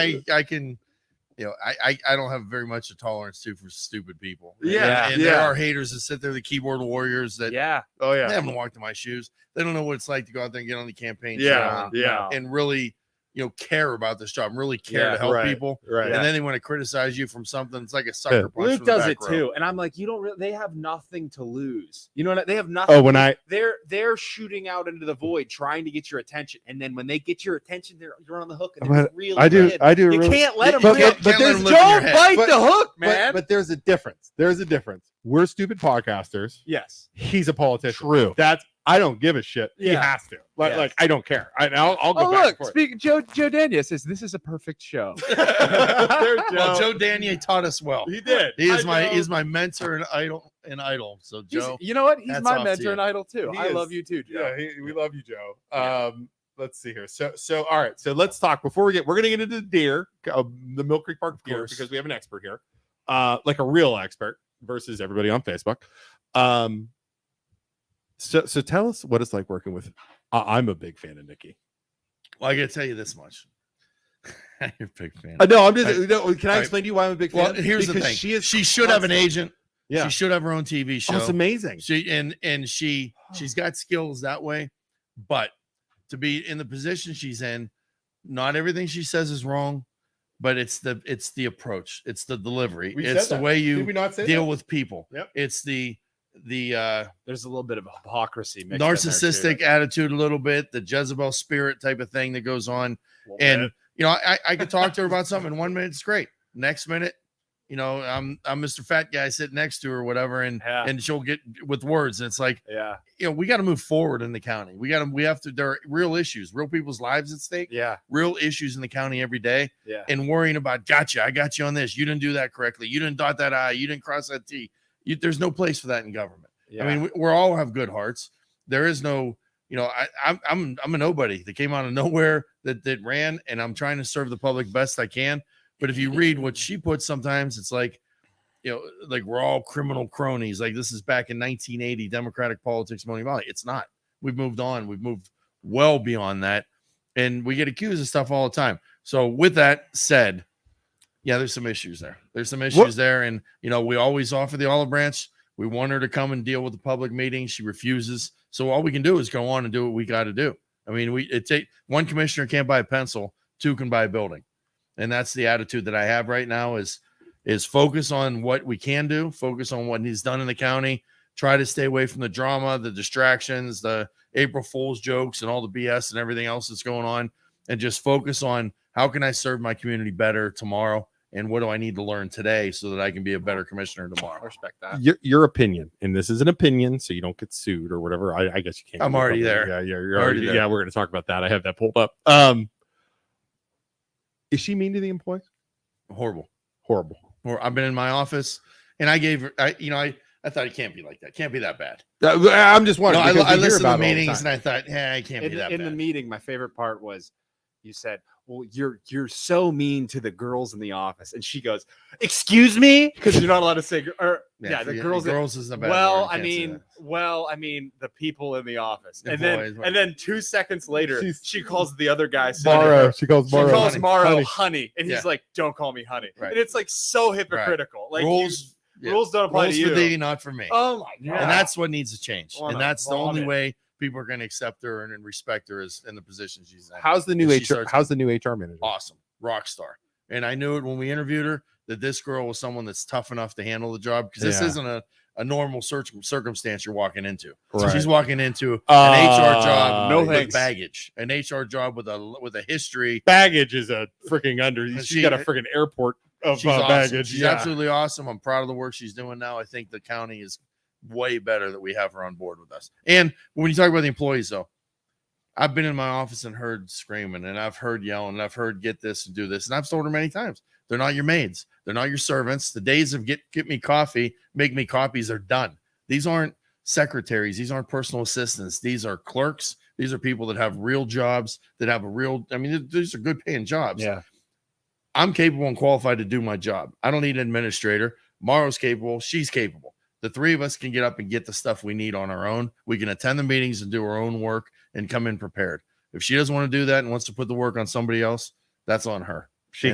I, I can, you know, I, I, I don't have very much a tolerance to for stupid people. And- Yeah, and, there yeah. are haters that sit there, the keyboard warriors that yeah, Oh they yeah. haven't walked in my shoes. They don't know what it's like to go out there and get on the campaign trail Yeah. and- Yeah. and, really, you know, care about this job, and really care Yeah, to help right. people. Right. And then they want to criticize you from something. It's like a sucker punch. Luke from the does it back row. too, and I'm like, you don't. Re- they have nothing to lose. You know what? I- They have nothing. Oh, when I they're they're shooting out into the void, trying to get your attention, and then when they get your attention, they're you're on the hook. And I'm they're gonna- really I do in. I do You really- can't let them. but, live. but, but Can't let there's them live in your don't head. bite Bite the the hook, man. but, but there's a difference. There's a difference. We're stupid podcasters. yes. He's a politician. True. That's I don't give a shit. He Yeah. has to. Like, Yeah. like I don't care. I, I'll, I'll go Oh back look, speak, Joe Joe Daniel says this is a perfect show. and forth. There's Well, Joe Danier taught us well. He did. He is I my know. is my mentor and idol and idol. So He's- Joe, you know what? He's hats my off to you. mentor and idol too. He I is. love you too, Joe. yeah, he, we love you, Joe. Um, let's see here. So, so all right. So let's talk before we get. We're gonna get into the deer, uh, the Mill Creek Park deer, course. because we have an expert here, uh, like a real expert versus everybody on Facebook. Um, so, so tell us what it's like working with. I, I'm a big fan of Nikki. well, I got to tell you this much. You're a big fan. Uh, no, I'm just. Right. No, can I Right. explain to you why I'm a big fan? Well, here's the Because thing. She is. she should have an constant. agent. Yeah. She should have her own TV show. Oh, it's amazing. She and and she she's got skills that way, but to be in the position she's in, not everything she says is wrong, but it's the it's the approach, it's the delivery, We it's the said that. way Did we you not say deal that? with people. Yep. It's the the uh There's a little bit of hypocrisy. mixed in there, too. narcissistic attitude a little bit, the Jezebel spirit type of thing that goes on. Little And bit. you know, I, I could talk to her about something. One minute it's great. Next minute, you know, I'm I'm Mr. Fat Guy sitting next to her or whatever, and Yeah. and she'll get with words. And it's like, yeah, you know, we got to move forward in the county. We got to we have to there are real issues, real people's lives at stake, yeah, real issues in the county every day, yeah. and worrying about gotcha, I got you on this. You didn't do that correctly. You didn't dot that I, you didn't cross that T. You, there's no place for that in government. yeah. I mean, we, we're all have good hearts. There is no, you know, I, I'm I'm I'm a nobody that came out of nowhere that that ran, and I'm trying to serve the public best I can. But if you read what she puts, sometimes it's like, you know, like we're all criminal cronies. Like this is back in 1980, Democratic politics, Money Valley. It's not. We've moved on. We've moved well beyond that, and we get accused of stuff all the time. So with that said, yeah, there's some issues there. There's some issues there, and you know, we always offer the olive branch. We want her to come and deal with the public meeting. She refuses. So all we can do is go on and do what we got to do. I mean, we it take one commissioner can't buy a pencil, two can buy a building. And that's the attitude that I have right now is is focus on what we can do, focus on what needs done in the county, try to stay away from the drama, the distractions, the April Fools jokes and all the BS and everything else that's going on and just focus on how can I serve my community better tomorrow and what do I need to learn today so that I can be a better commissioner I tomorrow. respect that. your, your opinion, and this is an opinion, so you don't get sued or whatever. I, I guess you can't. I'm get already there. something. Yeah, yeah, you're I'm already. already there. Yeah, we're gonna talk about that. I have that pulled up. Um, is she mean to the employees? Horrible. Horrible. or I've been in my office and I gave her, I, you know, I, I thought it can't be like that. Can't be that bad. Uh, I'm just No, wondering. I, because I we hear listened to about the it all the meetings and time. I thought, yeah, I can't be in, that in the bad. meeting my favorite part was you said well you're you're so mean to the girls in the office and she goes excuse me because you're not allowed to say gr- or yeah, the forget- girls, girls is the bad well word, i can't say mean that. well i mean the people in the office The and boys, then right. and then two seconds later She's- she calls the other guy sitting Morrow, there, she calls she Morrow. calls honey, Morrow honey, honey. and Yeah. he's like, "Don't call me honey," Right. and it's like so hypocritical. Like you- rules, yeah. rules don't apply rules to for you. thee, not for me. oh my god! And that's what needs to change. Wanna and that's the only vomit. way people are going to accept her and, and respect her is in the position she's in. How's the new If she HR? starts- How's the new HR manager? awesome, rock star. And I knew it when we interviewed her that this girl was someone that's tough enough to handle the job because this Yeah. isn't a, a normal search circumstance you're walking into. So Right. she's walking into an HR Uh, job no with thanks. baggage, an HR job with a with a history. Baggage is a freaking under. And She's she- got a freaking airport of She's uh, awesome. baggage. She's yeah. absolutely awesome. I'm proud of the work she's doing now. I think the county is way better that we have her on board with us. And when you talk about the employees, though, I've been in my office and heard screaming, and I've heard yelling, and I've heard get this and do this, and I've told her many times they're not your maids, they're not your servants. The days of get get me coffee, make me copies are done. These aren't secretaries. These aren't personal assistants. These are clerks. These are people that have real jobs, that have a real, I mean, th- these are good paying jobs. Yeah. I'm capable and qualified to do my job. I don't need an administrator. Morrow's capable. She's capable. The three of us can get up and get the stuff we need on our own. We can attend the meetings and do our own work and come in prepared. If she doesn't want to do that and wants to put the work on somebody else, that's on her.